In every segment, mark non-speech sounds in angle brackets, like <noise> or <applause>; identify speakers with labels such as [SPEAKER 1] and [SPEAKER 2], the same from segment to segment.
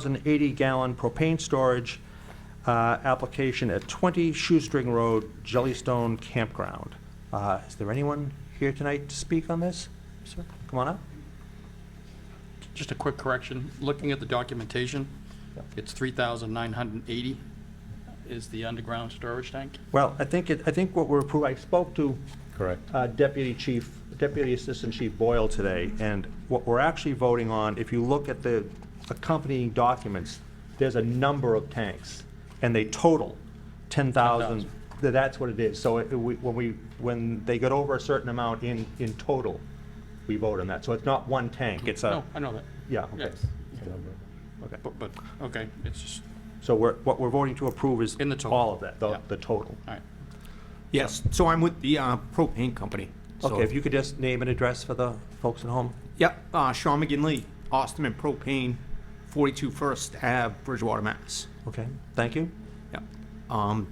[SPEAKER 1] 10,080 gallon propane storage uh, application at 20 Shoestring Road, Jellystone Campground. Uh, Is there anyone here tonight to speak on this? Sir, Come on up.
[SPEAKER 2] Just a quick correction, looking at the documentation,
[SPEAKER 1] Yeah.
[SPEAKER 2] it's 3,980 is the underground storage tank.
[SPEAKER 1] Well, I think, it- I think what we're approving, I spoke to
[SPEAKER 3] Correct.
[SPEAKER 1] uh, Deputy Chief, Deputy Assistant Chief Boyle today, and what we're actually voting on, if you look at the accompanying documents, there's a number of tanks, and they total 10,000.
[SPEAKER 2] 10,000.
[SPEAKER 1] Th- That's what it is. So it- we- when we, when they get over a certain amount in, in total, we vote on that. So it's not one tank, it's a,
[SPEAKER 2] No, I know that.
[SPEAKER 1] yeah, Uh, okay.
[SPEAKER 2] Yes.
[SPEAKER 1] okay.
[SPEAKER 2] But, but, okay, it's just,
[SPEAKER 1] So we're, what we're voting to approve is
[SPEAKER 2] In the total,
[SPEAKER 1] all of that,
[SPEAKER 2] yeah.
[SPEAKER 1] the the total.
[SPEAKER 2] all right.
[SPEAKER 3] Yes, so I'm with the uh, propane company. So-
[SPEAKER 1] Okay, if you could just name and address for the folks at home?
[SPEAKER 3] Yep, uh, Sean McGinley, Austin and Propane, 42 First Ave, Bridgewater, Mass.
[SPEAKER 1] Okay, thank you.
[SPEAKER 3] Yep. Um,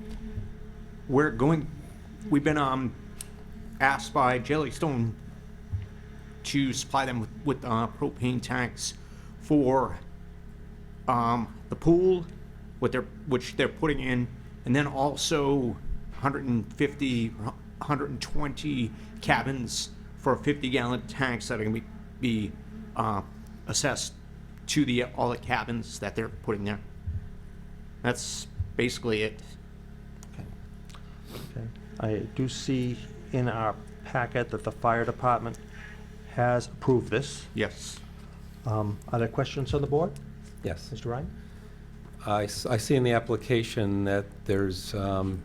[SPEAKER 3] We're going, we've been um, asked by Jellystone to supply them with- with uh, propane tanks for um, the pool, what they're, which they're putting in, and then also 150, 120 cabins for 50-gallon tanks that are going to be be, uh, assessed to the, all the cabins that they're putting there. That's basically it.
[SPEAKER 1] Okay. I do see in our packet that the fire department has approved this.
[SPEAKER 3] Yes.
[SPEAKER 1] Um, Are there questions on the board?
[SPEAKER 4] Yes.
[SPEAKER 1] Mr. Ryan?
[SPEAKER 4] I, s- I see in the application that there's um,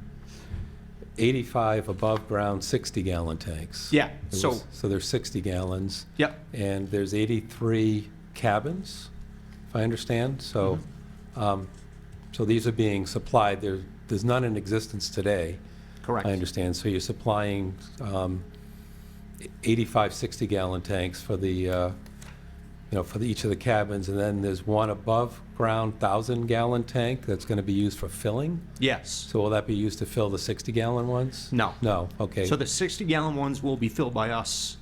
[SPEAKER 4] 85 above-ground 60-gallon tanks.
[SPEAKER 3] Yeah,
[SPEAKER 4] There
[SPEAKER 3] so-
[SPEAKER 4] was- So there's 60 gallons.
[SPEAKER 3] Yep.
[SPEAKER 4] And there's 83 cabins, if I understand, so, um, so these are being supplied, there, there's none in existence today.
[SPEAKER 3] Correct.
[SPEAKER 4] I understand, so you're supplying um, 85, 60-gallon tanks for the, uh, you know, for the- each of the cabins, and then there's one above-ground 1,000-gallon tank that's going to be used for filling?
[SPEAKER 3] Yes.
[SPEAKER 4] So will that be used to fill the 60-gallon ones?
[SPEAKER 3] No.
[SPEAKER 4] No, okay,
[SPEAKER 3] So the 60 gallon ones will be filled by us.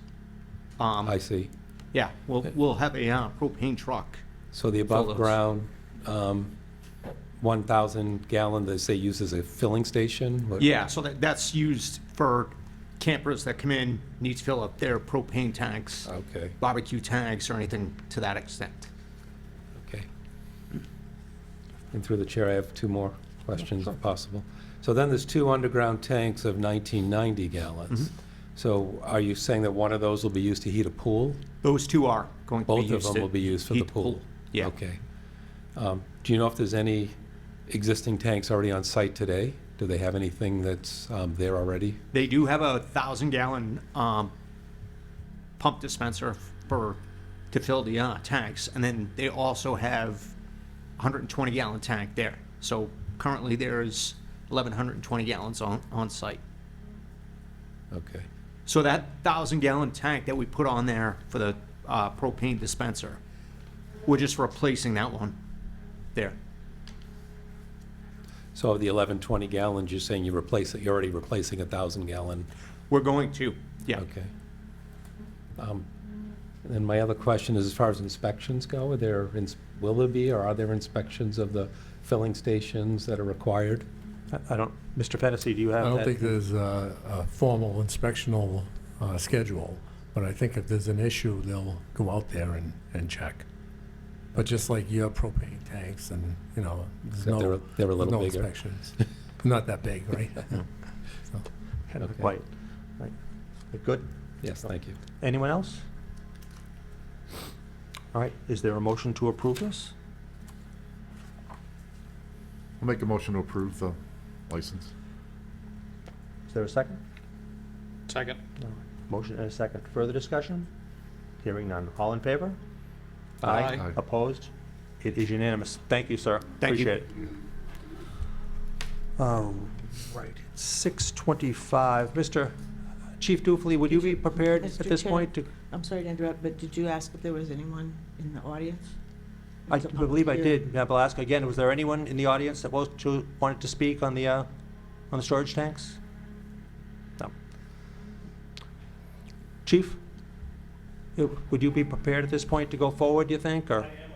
[SPEAKER 3] Um,
[SPEAKER 4] I see.
[SPEAKER 3] yeah, we'll, we'll have a uh, propane truck.
[SPEAKER 4] So the
[SPEAKER 3] Fill those.
[SPEAKER 4] above-ground um, 1,000 gallon, they say used as a filling station? What-
[SPEAKER 3] Yeah, so that, that's used for campers that come in, need to fill up their propane tanks,
[SPEAKER 4] Okay,
[SPEAKER 3] barbecue tanks, or anything to that extent.
[SPEAKER 4] okay. And through the chair, I have two more questions if possible. So then there's two underground tanks of 1990 gallons. So are you saying that one of those will be used to heat a pool?
[SPEAKER 3] Those two are going to be
[SPEAKER 4] Both
[SPEAKER 3] used.
[SPEAKER 4] of them
[SPEAKER 3] to
[SPEAKER 4] will be used for the
[SPEAKER 3] heat
[SPEAKER 4] pool?
[SPEAKER 3] Yeah.
[SPEAKER 4] Okay. Um, Do you know if there's any existing tanks already on site today? Do they have anything that's um, there already?
[SPEAKER 3] They do have a thousand gallon um, pump dispenser for to fill the uh, tanks, and then they also have 120 gallon tank there. So currently there is 1120 gallons on on site.
[SPEAKER 4] Okay.
[SPEAKER 3] So that thousand gallon tank that we put on there for the uh, propane dispenser, we're just replacing that one there.
[SPEAKER 4] So of the 11, 20 gallons, you're saying you replace it, you're already replacing a 1,000 gallon?
[SPEAKER 3] We're going to, yeah.
[SPEAKER 4] Okay. Um, And then my other question is, as far as inspections go, are there, ins- will there be, or are there inspections of the filling stations that are required?
[SPEAKER 1] I- I don't, Mr. Fennessy, do you have
[SPEAKER 5] I
[SPEAKER 1] that?
[SPEAKER 5] don't think there's a, a formal inspectional, uh, schedule, but I think if there's an issue, they'll go out there and, and check. But just like your propane tanks and, you know, there's
[SPEAKER 4] Except they're,
[SPEAKER 5] no,
[SPEAKER 4] they're a
[SPEAKER 5] no
[SPEAKER 4] little bigger.
[SPEAKER 5] inspections. <laughs> Not that big,
[SPEAKER 4] <laughs>
[SPEAKER 5] right?
[SPEAKER 1] Kind of
[SPEAKER 4] okay.
[SPEAKER 1] Quite, right. Good.
[SPEAKER 4] Yes, thank you.
[SPEAKER 1] Anyone else? All right, is there a motion to approve this?
[SPEAKER 6] I'll make a motion to approve the license.
[SPEAKER 1] Is there a second?
[SPEAKER 2] Second.
[SPEAKER 1] Motion and a second. Further discussion? Hearing none. All in favor?
[SPEAKER 2] Aye.
[SPEAKER 6] Aye.
[SPEAKER 1] Opposed? It is unanimous. Thank you, sir.
[SPEAKER 3] Thank you.
[SPEAKER 1] Appreciate it. All right, six twenty-five. Mr. Chief Dufley, would you be prepared at
[SPEAKER 7] Mr.
[SPEAKER 1] this
[SPEAKER 7] Chair?
[SPEAKER 1] point to?
[SPEAKER 7] I'm sorry to interrupt, but did you ask if there was anyone in the audience?
[SPEAKER 1] I
[SPEAKER 7] It's a public
[SPEAKER 1] believe I
[SPEAKER 7] hearing.
[SPEAKER 1] did. Now, I'll ask again, was there anyone in the audience that was to, wanted to speak on the, uh, on the storage tanks? No. Chief, you- would you be prepared at this point to go forward, do you think, or? I am